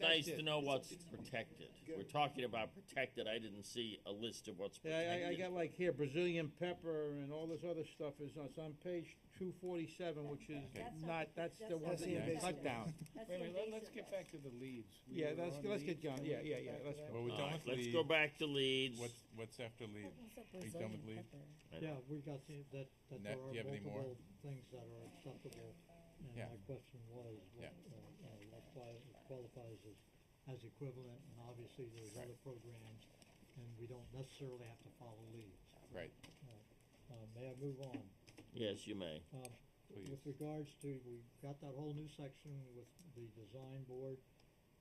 nice Mm, it. to know what's protected. We're talking about protected, I didn't see a list of what's Yeah, I- I, I protected. got like here Brazilian pepper and all this other stuff is, it's on page two forty-seven, which is That's not- not, that's the that's one not that you invasive. cut down. That's Wait a minute, let- let's invasive, get though. back to the leads. We Yeah, were let's, on let's get leads. going, Can yeah, we yeah, get yeah, back to let's that? go. Well, we're All done right, with let's go leads. back to leads. What's, what's after leads? Are you done with leads? Yeah, we got the, that, that Nat, there are do you have any more? multiple things that are acceptable. And Yeah. my question was, what, Yeah. uh, uh, what quali- qualifies as, as equivalent? And obviously, there's Right. other programs, and we don't necessarily have to follow leads. Right, Uh, may I move on? Yes, you may. Um, please. with regards to, we got that whole new section with the design board.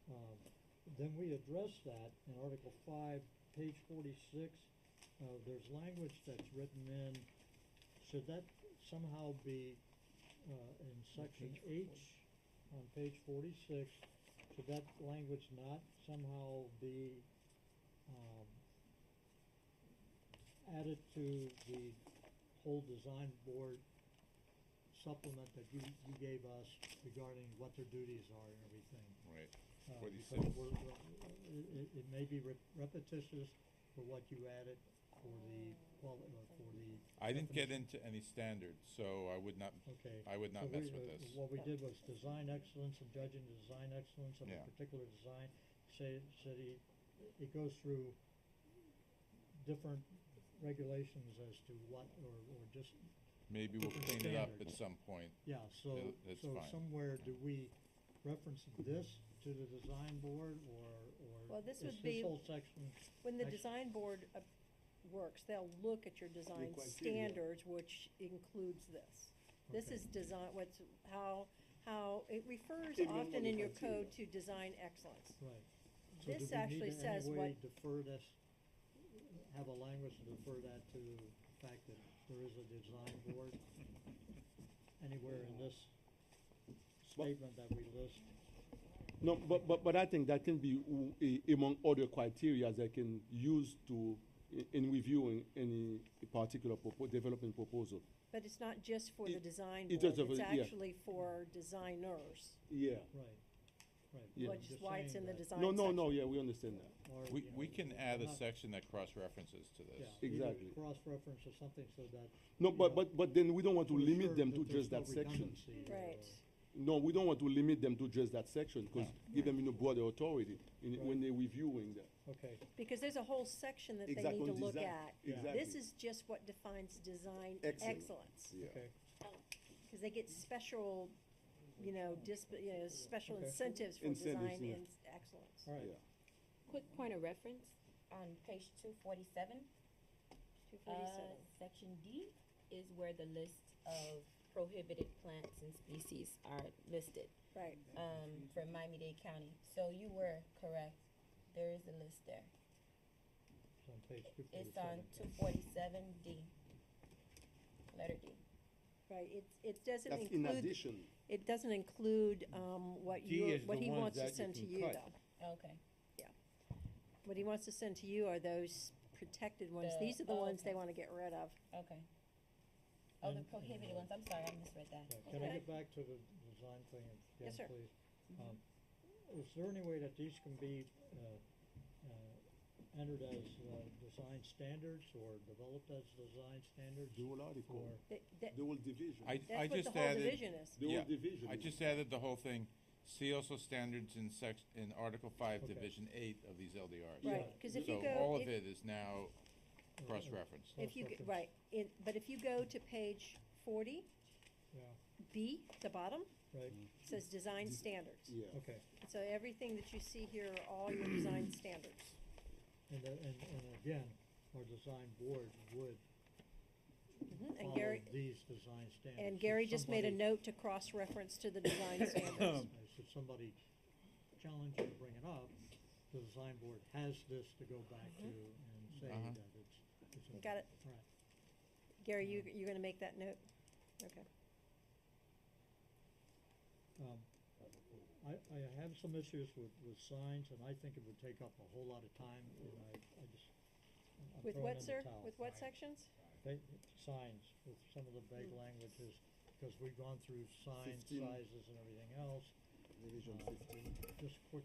Um, then we addressed that in Article five, page forty-six. Uh, there's language that's written in, should that somehow be, uh, in section H on page forty-six? Should that language not somehow be, um, added to the whole design board supplement that you, you gave us regarding what their duties are and everything. Right, Uh, What do you because think? we're- we're- It, it- it may be rep- repetitious for what you added for the, quali- uh, for the, I didn't get Definition. into any standards, so I would not, okay. I would So not we- mess with uh, this. What we did was design excellence and judging the design excellence of a Yeah. particular design. Say, said he, it goes through different regulations as to what, or, or just Maybe we'll different clean it up at standards. some point. Yeah, so, No, that's so fine. somewhere, do we reference this to the design board or, or Well, this is would be- this whole section? When the Actu- design board uh, works, they'll look at your design criteria. standards, which includes this. This Okay. is design, what's, how, how, it refers Give me all often the in your criteria. code to design excellence. Right. So do This we need actually to in says any what, way Defer this, have a language to defer that to the fact that there is a design board anywhere in this Well- statement that we list? No, but, but, but I think that can be w- a- among other criteria they can use to, i- in reviewing any particular propo- development proposal. but it's not just for the It- design it board, does have it's a- yeah. actually for designers, Yeah. Right, right. Yeah. which is Just why it's saying in the that- design No, section. no, no, yeah, we understand that. or, We, you know, we can add a not- section that cross-references to Yeah, this. either Exactly. Cross-reference or something so that No, Yeah. but, but, but then we don't want to We're limit sure them to that there's just no that section. redundancy or- Right, No, we don't want to limit them to just that section, because give them, you know, broader authority in, Right. when they're reviewing that. Okay, because there's a whole section that they Exact need to on look design. at. Exactly. This is just what defines design Excellence. excellence. Yeah. okay, Cause they get special, you know, disp- you know, special Okay. incentives for Incentives, design yeah. and excellence. all right. Yeah. Quick point of reference, on page two forty-seven, Two uh, forty-seven. section D is where the list of prohibited plants and species are listed, Right, um, for Miami-Dade County. So you were correct, there is a list there. It's on page two It's on forty-seven. two forty-seven D, letter D. right, it, it doesn't That's in include, addition. it doesn't include, um, what D you, is what the he ones wants to that you send to can you cut. though. Okay, What he wants to send to you are those protected ones, The- these are the oh, ones they okay. wanna get rid of. okay. Oh, the And- prohibited and, ones, I'm sorry, I misread that. Yeah, Can I Okay. get back to the design thing again, Yes, sir. Mm-hmm. please? Um, Is there any way that these can be, uh, uh, entered as, uh, design standards or developed as design standards? The whole article, Or- That, that, the whole division, I, I that's what the just whole added, division is. the whole yeah, division. I just added the whole thing. See also standards in sec, in Article Five, Okay. Division Eight of these LDRs. Right, 'cause if you So go- all of if- it is now or- or- cross-referenced. If you, g- cross-reference? right, it, but if you go to page forty, Yeah, B, the bottom, right, Mm-hmm. it says design standards. Yeah. okay. So everything that you see here are all your design standards. And, the- and, and again, our design board would Mhm, And follow Gary, these design standards. and If Gary just made a somebody- Um. note to cross-reference to the design standards. I said, somebody challenge you to bring it up, the design board has this to go back to and say Uh-huh. that it's, it's. in- Mm-hmm. Got it. All right. Gary, you, you're gonna make that note? Okay. Um, I, I have some issues with, with signs, and I think it would take up a whole lot of time, and I, I just, I'm- I'm With throwing in what, the sir? towel. With what sections? Ba- Signs, with some of the vague languages, because we've gone through sign 15. sizes and everything else. Division Uh, fifteen. Just quick